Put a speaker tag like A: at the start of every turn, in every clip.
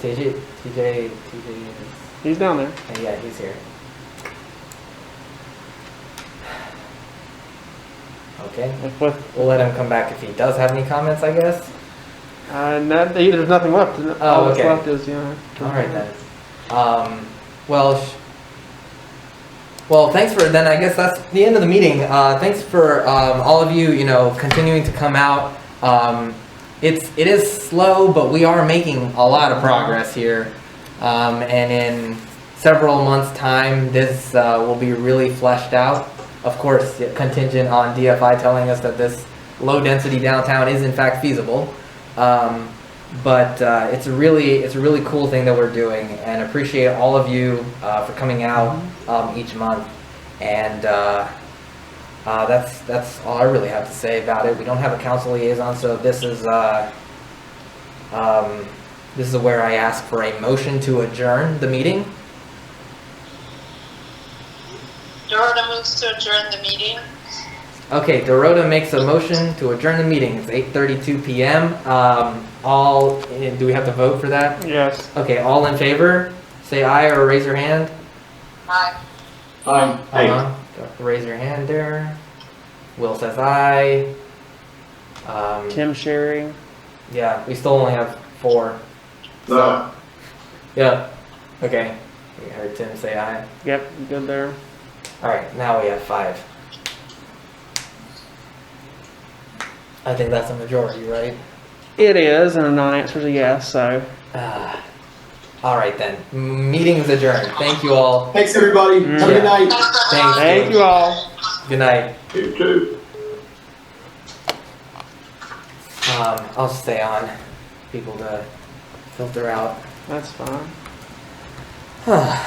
A: TJ, TJ, TJ is,
B: He's down there.
A: and yeah, he's here. Okay,
B: If with,
A: we'll let him come back if he does have any comments, I guess.
B: uh, not, there's nothing left. All
A: Oh,
B: that's
A: okay.
B: left is yeah.
A: All right then. Um, well, sh- well, thanks for then. I guess that's the end of the meeting. Uh, thanks for um, all of you. You know, continuing to come out. Um, it's it is slow, but we are making a lot of progress here. Um, and in several months' time, this uh, will be really fleshed out. Of course, contingent on DFI telling us that this low-density downtown is in fact feasible. Um, but uh, it's a really it's a really cool thing that we're doing and appreciate all of you uh, for coming out um, each month and uh, uh, that's that's all I really have to say about it we don't have a council liaison so this is uh, um, this is where I ask for a motion to adjourn the meeting
C: Dorota moves to adjourn the meeting.
A: okay Dorota makes a motion to adjourn the meeting it's 8:32 p.m. um, all eh, do we have to vote for that
B: Yes.
A: okay all in favor say aye or raise your hand
C: Aye.
D: Aye.
A: Hold on. Go- Uh-huh. Raise your hand there. Will says aye. Um,
B: Tim Sherry.
A: yeah, we still only have four.
D: No.
A: Yeah. Okay. We heard Tim say aye.
B: Yep, good there.
A: All right, now we have five. I think that's a majority, right?
B: It is, and a non-answer is a yes. So
A: Ah. all right then. M- Meeting is adjourned. Thank you all.
D: Thanks, everybody. Have a
A: Yeah.
D: good night.
A: Thanks.
B: thank you all.
A: Good night.
D: You too.
A: Um, I'll stay on. People to filter out.
B: That's fine.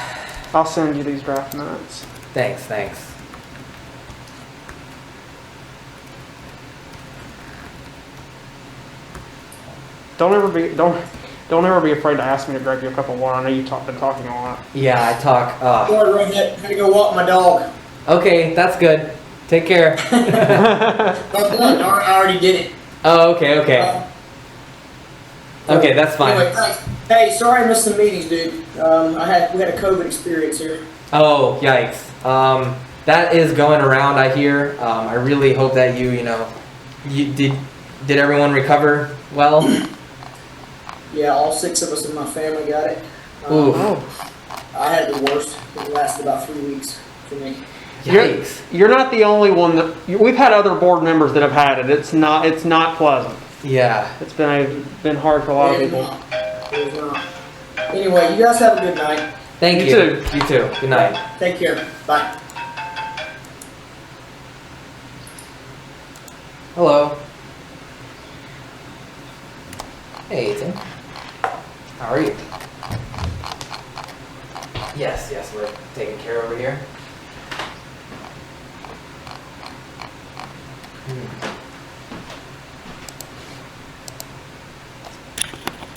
B: I'll send you these draft notes.
A: Thanks, thanks.
B: Don't ever be don't don't ever be afraid to ask me to grab you a cup of water. I know you've talked, been talking a lot.
A: Yeah, I talk. Uh,
D: Sorry, Redneck. Had to go walk my dog.
A: Okay, that's good. Take care.
D: That's done. I already- I already did it. Uh,
A: oh, okay, okay. Okay, that's
D: Anyway,
A: fine.
D: thanks. Hey, sorry I missed some meetings, dude. Um, I had we had a COVID experience here.
A: Oh, yikes. Um, that is going around, I hear. Um, I really hope that you, you know, you, did did everyone recover well?
D: Yeah, all six of us in my family got it. Um,
A: Ooh,
B: oh,
D: I had the worst. It lasted about three weeks for me.
A: yikes.
B: you're not the only one that you, we've had other board members that have had it. It's not it's not pleasant.
A: Yeah.
B: It's been a, been hard for a lot of
D: It was
B: people.
D: not. It was not. Anyway, you guys have a good night.
A: Thank you.
B: You too.
A: You too. Good night.
D: Take care. Bye.
A: Hello. Hey, Ethan. How are you? Yes, yes, we're taking care over here. Hmm.